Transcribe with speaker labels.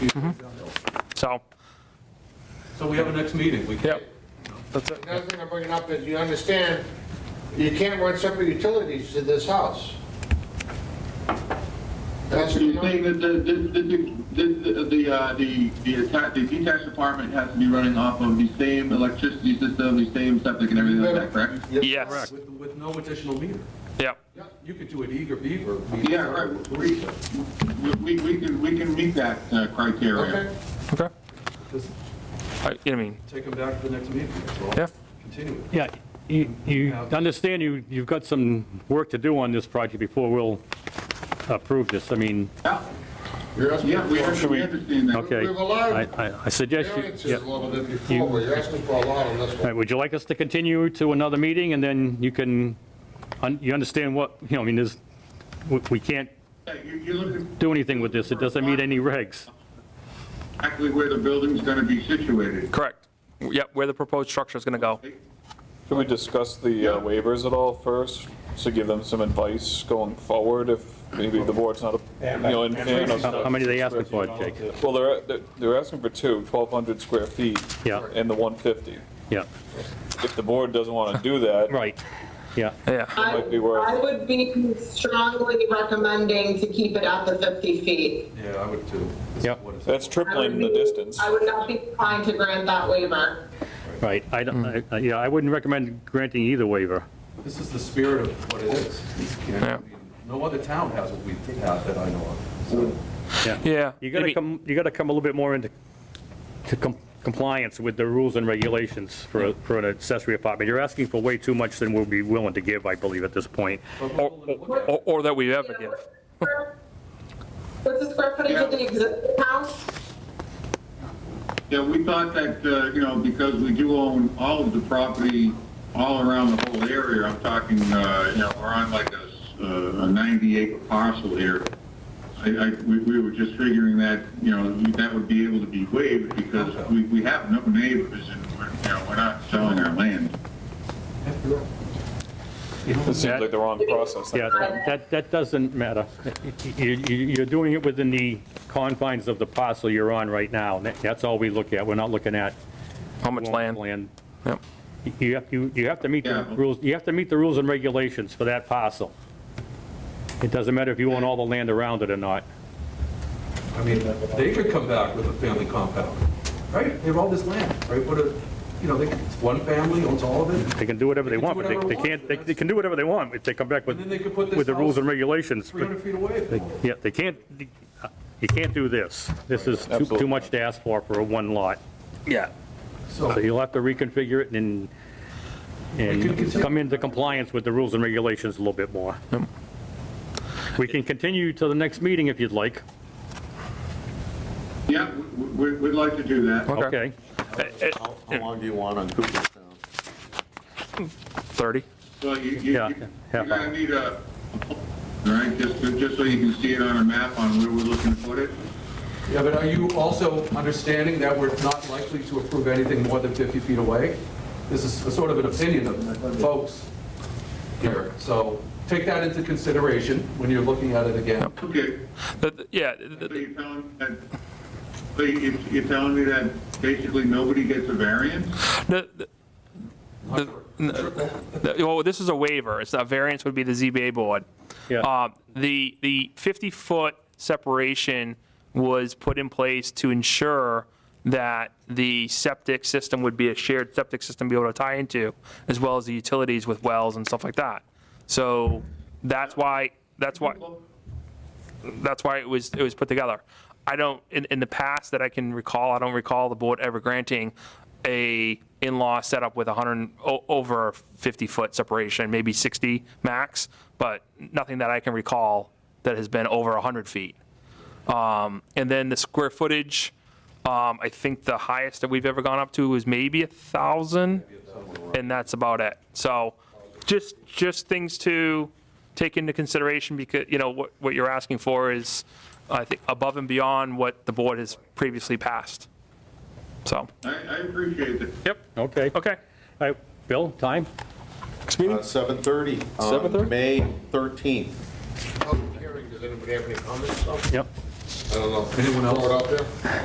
Speaker 1: So,
Speaker 2: Mm-hmm. So we have a next meeting. We
Speaker 1: yep, that's it.
Speaker 3: Another thing I'm bringing up is, you understand, you can't run separate utilities to this house. That's,
Speaker 4: You're saying that the, the, the, the, the, uh, the, the attack, the detached apartment has to be running off of the same electricity system, the same septic and everything like that, correct?
Speaker 1: Yes,
Speaker 2: With, with no additional meter.
Speaker 1: yep,
Speaker 2: You could do an eager beaver. meter.
Speaker 4: Yeah, right, we, we, we can, we can meet that uh, criteria.
Speaker 3: okay,
Speaker 1: okay.
Speaker 2: Just
Speaker 1: I, I mean,
Speaker 2: take them back to the next meeting. That's all.
Speaker 1: Yeah.
Speaker 2: Continue it.
Speaker 5: Yeah, you, you understand you, you've got some work to do on this project before we'll approve this. I mean,
Speaker 4: Yeah,
Speaker 3: you're asking
Speaker 4: yeah, we
Speaker 3: for
Speaker 4: we understand that.
Speaker 5: okay.
Speaker 3: We've allowed
Speaker 5: I, I- I suggest you,
Speaker 3: variances
Speaker 5: yeah.
Speaker 3: a
Speaker 5: All
Speaker 3: little bit before, but you're asking for a lot on this one.
Speaker 5: right, would you like us to continue to another meeting and then you can, un- you understand what, you know, I mean, there's, we- we can't
Speaker 4: Yeah, you- You're looking
Speaker 5: do anything with this. It doesn't meet any regs.
Speaker 4: exactly where the building's gonna be situated.
Speaker 1: correct. Yep, where the proposed structure is going to go.
Speaker 6: Can we discuss the uh, waivers at all first, to give them some advice going forward, if maybe the board's not, a- you know, in fan of...
Speaker 5: How how many are they asking for, Jake?
Speaker 6: Well, they're, they're- they're asking for two, 1,200 square feet.
Speaker 5: Yeah.
Speaker 6: And the 150.
Speaker 5: Yeah,
Speaker 6: If the board doesn't want to do that.
Speaker 5: right, yeah.
Speaker 1: Yeah,
Speaker 6: might be worth-
Speaker 7: I would be strongly recommending to keep it at the 50 feet.
Speaker 2: Yeah, I would too. This is
Speaker 5: Yep.
Speaker 2: what it's-
Speaker 6: That's
Speaker 7: I would
Speaker 6: tripling the
Speaker 7: be-
Speaker 6: distance.
Speaker 7: I would not be inclined to grant that waiver.
Speaker 5: Right, I don't, I- yeah, I wouldn't recommend granting either waiver.
Speaker 2: This is the spirit of what it is. You know, I
Speaker 1: Yeah.
Speaker 2: mean, No other town has what we have that I know of. So
Speaker 1: yeah.
Speaker 5: You gotta
Speaker 1: maybe-
Speaker 5: come, you gotta come a little bit more into to com- compliance with the rules and regulations for, a- for an accessory apartment. You're asking for way too much than we'll be willing to give, I believe, at this point.
Speaker 2: but
Speaker 1: Or,
Speaker 2: we'll look
Speaker 1: or-
Speaker 2: at it.
Speaker 1: or- or that we ever give.
Speaker 7: What's the square footage of the existing house?
Speaker 4: Yeah, we thought that, uh, you know, because we do own all of the property all around the whole area, I'm talking, uh, you know, we're on like a s- uh, a 90 acre parcel here. I, I, we we were just figuring that, you know, that would be able to be waived because we, we have no neighbors and we're, you know, we're not selling our land.
Speaker 2: Mm.
Speaker 6: This seems like the wrong process.
Speaker 5: Yeah, that- that, that doesn't matter. You, you- you're doing it within the confines of the parcel you're on right now. That- That's all we look at. We're not looking at.
Speaker 1: How much land?
Speaker 5: Land.
Speaker 1: Yep.
Speaker 5: You have, you, you have to meet the
Speaker 4: Yeah.
Speaker 5: rules, you have to meet the rules and regulations for that parcel. It doesn't matter if you own all the land around it or not.
Speaker 2: I mean, they could come back with a family compound, right? They have all this land, right? But, uh, you know, they, it's one family owns all of it.
Speaker 5: They can do whatever they
Speaker 2: They can
Speaker 5: want,
Speaker 2: do
Speaker 5: but they they
Speaker 2: whatever they
Speaker 5: can't,
Speaker 2: want,
Speaker 5: they- they can do whatever they want if they come back with,
Speaker 2: And then they could put this
Speaker 5: with the rules
Speaker 2: house
Speaker 5: and regulations. but
Speaker 2: 300 feet away. if they
Speaker 5: they-
Speaker 2: want.
Speaker 5: Yeah, they can't, you can't do this. This is too- too
Speaker 6: Absolutely.
Speaker 5: much to ask for, for a one lot.
Speaker 2: So
Speaker 5: So you'll have to reconfigure it and,
Speaker 2: could
Speaker 5: and
Speaker 2: continue.
Speaker 5: come into compliance with the rules and regulations a little bit more. We can continue to the next meeting if you'd like.
Speaker 4: Yeah, we, we- we'd like to do that.
Speaker 1: Okay.
Speaker 5: Okay.
Speaker 8: How how long do you want on Cooperstown?
Speaker 1: 30?
Speaker 4: Well, you, you,
Speaker 5: Yeah,
Speaker 4: you-
Speaker 5: yeah.
Speaker 4: you're gonna need a, all right, just, just so you can see it on a map on where we're looking to put it.
Speaker 2: Yeah, but are you also understanding that we're not likely to approve anything more than 50 feet away? This is a sort of an opinion of folks here, so take that into consideration when you're looking at it again.
Speaker 4: Okay.
Speaker 1: The- the- Yeah, the-
Speaker 4: So
Speaker 1: the-
Speaker 4: you're telling, that- so you- you're telling me that basically nobody gets a variance?
Speaker 1: the- the- the- well, this is a waiver. It's, a variance would be the ZBA board.
Speaker 5: Yeah.
Speaker 1: Uh, The, the 50-foot separation was put in place to ensure that the septic system would be a shared septic system be able to tie into, as well as the utilities with wells and stuff like that. So that's why, that's why, that's why it was, it was put together. I don't, in, in the past that I can recall, I don't recall the board ever granting a in-law setup with 100, o- over 50-foot separation, maybe 60 max, but nothing that I can recall that has been over 100 feet. Um, And then the square footage, um, I think the highest that we've ever gone up to was maybe a 1,000, and that's about it. So just, just things to take into consideration, because, you know, what, what you're asking for is, I think, above and beyond what the board has previously passed. So,
Speaker 4: I, I appreciate that.
Speaker 1: yep,
Speaker 5: Okay. All
Speaker 1: okay.
Speaker 5: right, Bill, time?
Speaker 8: Uh, 7:30
Speaker 6: 7:30?
Speaker 8: on May 13th.
Speaker 3: Public hearing, does anybody have any comments?
Speaker 5: Yep.
Speaker 3: I don't know.
Speaker 2: Anyone else?
Speaker 3: Throw it out there?